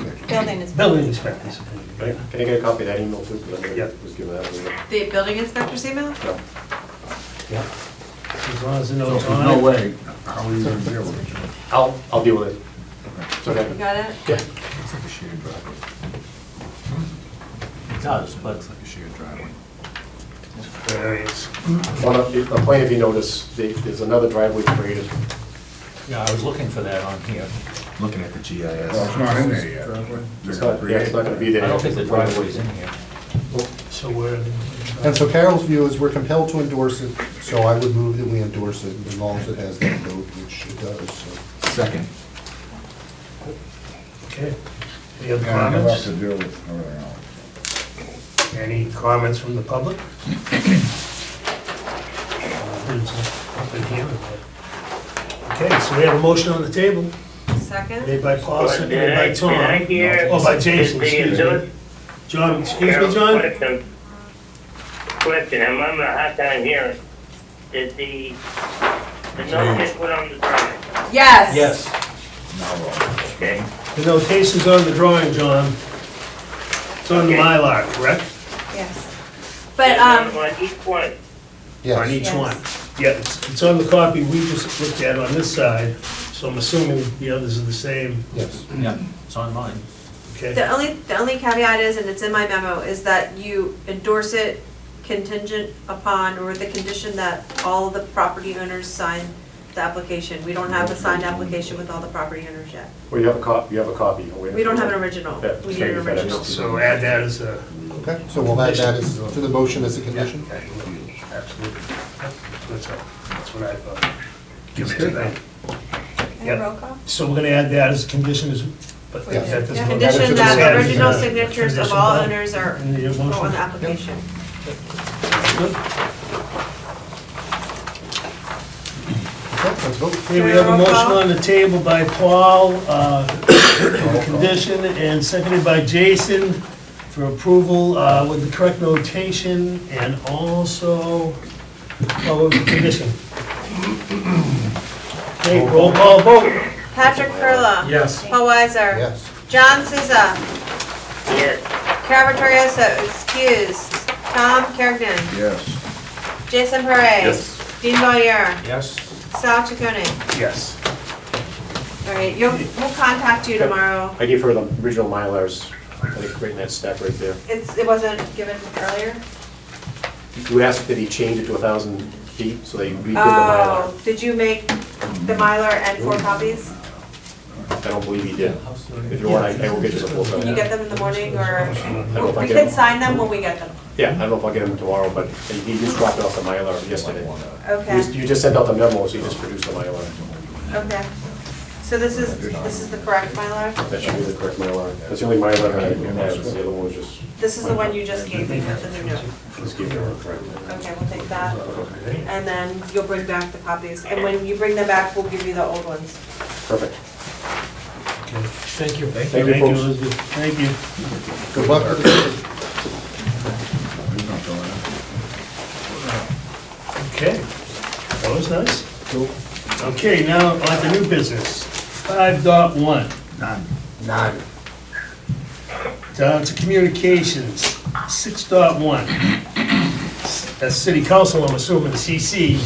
building inspector. Building inspector's opinion, right? Can I get a copy of that email too? 'Cause I Yeah. never was given that one. The building inspector's email? No. Yeah. As long as the So note's there's on no it. way, how are you gonna deal with it? I'll, I'll deal with it. It's You okay. got it? Yeah. It's like a shared driveway. It does, but It's like a shared driveway. various. On a, a plan, if you notice, they- there's another driveway created. Yeah, I was looking for that on here. Looking at the GIS. Well, it's not in there yet. It's not, yeah, it's not gonna be I there. don't think the driveway's in here. So where? And so Carol's view is we're compelled to endorse it, so I would move that we endorse it as long as it has that vote, which it does, so. Second. Okay. Any other Yeah, it'll have comments? to do with everything else. Any comments from the public? Uh, there's a public hearing, but- Okay, so we have a motion on the table, Second? made by Paul, seconded by Tom. Did I hear- Oh, by Jason, did the excuse me. endorse- John, excuse Carol, me, John? Question, Question, I'm having a hard time hearing. Did the, the note get put on the drawing? Yes. Yes. Now we're Okay, The notation's on the drawing, John. It's on the Okay. Mylar, correct? Yes. But, um, On each one, On Yes, each Yes. one? Yeah, it's it's on the copy we just looked at on this side, so I'm assuming the others are the same, yes. on. Yeah, it's on mine. okay? the only, the only caveat is, and it's in my memo, is that you endorse it contingent upon, or with the condition that all the property owners sign the application. We don't have a signed application with all the property owners yet. Well, you have a cop, you have a copy. I'll wait We don't have an for it. original. Yeah, We need an maybe FedEx. original. So add that as a. Okay, so we'll add that as, to the motion as a condition? Absolutely. That's all. That's what I thought. Give it to them. Yep. roll call? So we're gonna add that as a condition, as- but Yeah. that doesn't. Yeah, Condition that that is- original signatures of all owners are In the are on the motion. application. Okay, let's vote. Okay, we have a Roll motion call. on the table by Paul, uh, for condition, and seconded by Jason for approval uh, with the correct notation and also, oh, with the condition. Okay, roll call vote. Patrick Perla. Yes. Paul Weiser. Yes. John Souza. yes, Carol Vittorioso, excused. Tom Kergnen. Yes. Jason Parre. Dean Valier. Yes. Sal Chaconi. Yes. All right, you'll, we'll contact you tomorrow. I gave her the original Mylars, I think, right in that stack right there. It's, it wasn't given earlier? You asked that he change it to a thousand feet, so they redid the Mylar. Oh, did you make the Mylar and four copies? I don't believe he did. If you want, I I will get you the full Can you copy. get them in the morning or? I don't know if I We get can him. sign them when we get them. Yeah, I don't know if I'll get him tomorrow, but he just dropped off the Mylar yesterday. You just- Okay, You just sent out the memo, so you just produced the Mylar. okay. So this is, this is the correct Mylar? That should be the correct Mylar. That's the only Mylar I have, the other one was just, This is the one you just gave me, not the new note. just gave her a friend. Okay, we'll take that. And then you'll bring back the copies. And when you bring them back, we'll give you the old ones. Perfect. Thank you. you, folks. Elizabeth. Thank you. Good luck with the, He's not going in. Okay, that was nice. Okay, now on to new business. Five dot one. None. None. Down to communications, six dot one. That's city council, I'm assuming, CC,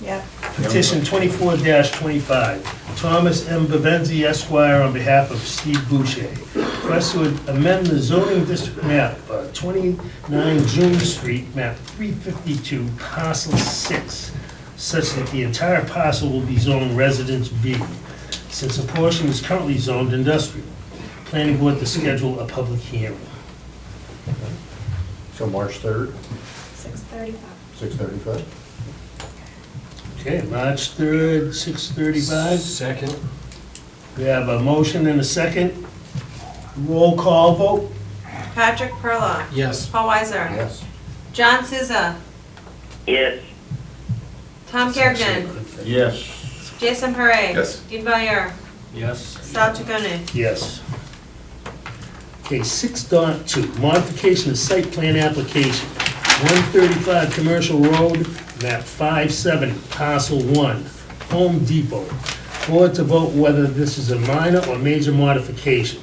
Yeah. petition twenty-four twenty-five. Thomas M. Bevenzi Esquire on behalf of Steve Boucher. Request to amend the zoning district map, uh, twenty-nine June Street, map three fifty-two, parcel six, such that the entire parcel will be zoned residence B, since a portion is currently zoned industrial. Planning board to schedule a public hearing. so March 3rd, Six thirty-five. 6:35? Okay, March 3rd, 6:35. Second. We have a motion and a second. Roll call vote? Patrick Perla. Yes. Paul Weiser. Yes. John Souza. yes, Tom Kergnen. Yes. Jason Parre. Yes. Dean Valier. Yes. Sal Chaconi. Yes. Okay, 6.2, modification of site plan application. 135 Commercial Road, map 570, parcel 1, Home Depot. Board to vote whether this is a minor or major modification.